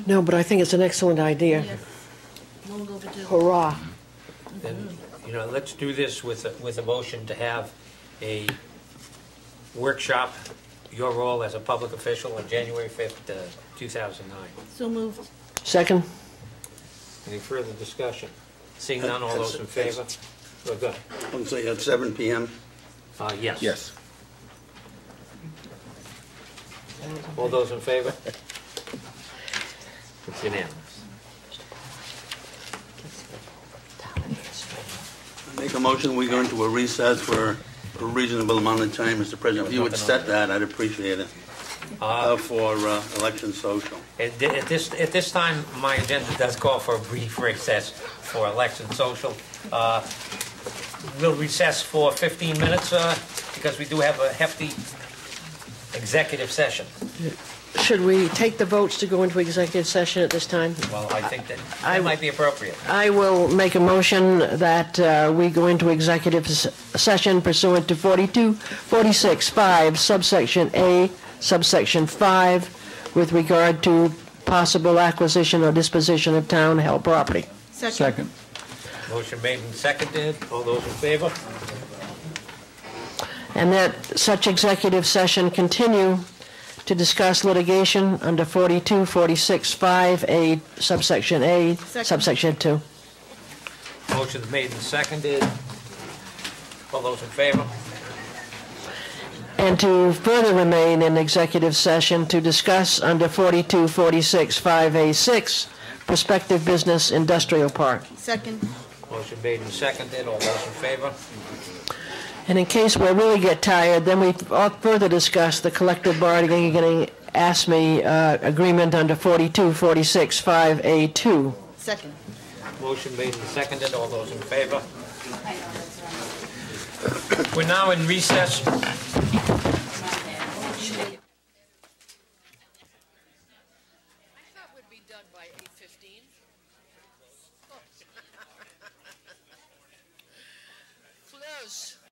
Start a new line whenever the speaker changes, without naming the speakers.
No, but I think it's an excellent idea.
Long overdue.
Hurrah.
Then, you know, let's do this with, a- with a motion to have a workshop, your role as a public official on January 5th, uh, 2009.
So moved.
Second?
Any further discussion? Seeing none, all those in favor? We're good.
Let's say at seven PM.
Uh, Yes. All those in favor? It's unanimous.
I Make a motion, we go into a recess for a reasonable amount of time, Mr. President. If you would set that, I'd appreciate it,
Uh,
uh, for uh, election social.
At thi- at this, at this time, my agenda does call for a brief recess for election social. Uh, We'll recess for 15 minutes uh, because we do have a hefty executive session.
Should we take the votes to go into executive session at this time?
Well, I think that
I-
that might be appropriate.
I will make a motion that uh, we go into executive s- session pursuant to 42, 46, 5, subsection A, subsection 5, with regard to possible acquisition or disposition of town-held property.
Second.
Motion made and seconded. All those in favor?
and that such executive session continue to discuss litigation under 42, 46, 5A, subsection A,
Second.
subsection 2.
Motion's made and seconded. All those in favor?
And to further remain in executive session to discuss under 42, 46, 5A6, prospective business industrial park.
Second.
Motion made and seconded. All those in favor?
And in case we really get tired, then we all further discuss the collective bargaining ASME uh, agreement under 42, 46, 5A2.
Second.
Motion made and seconded. All those in favor? We're now in recess.
I thought we'd be done by eight fifteen.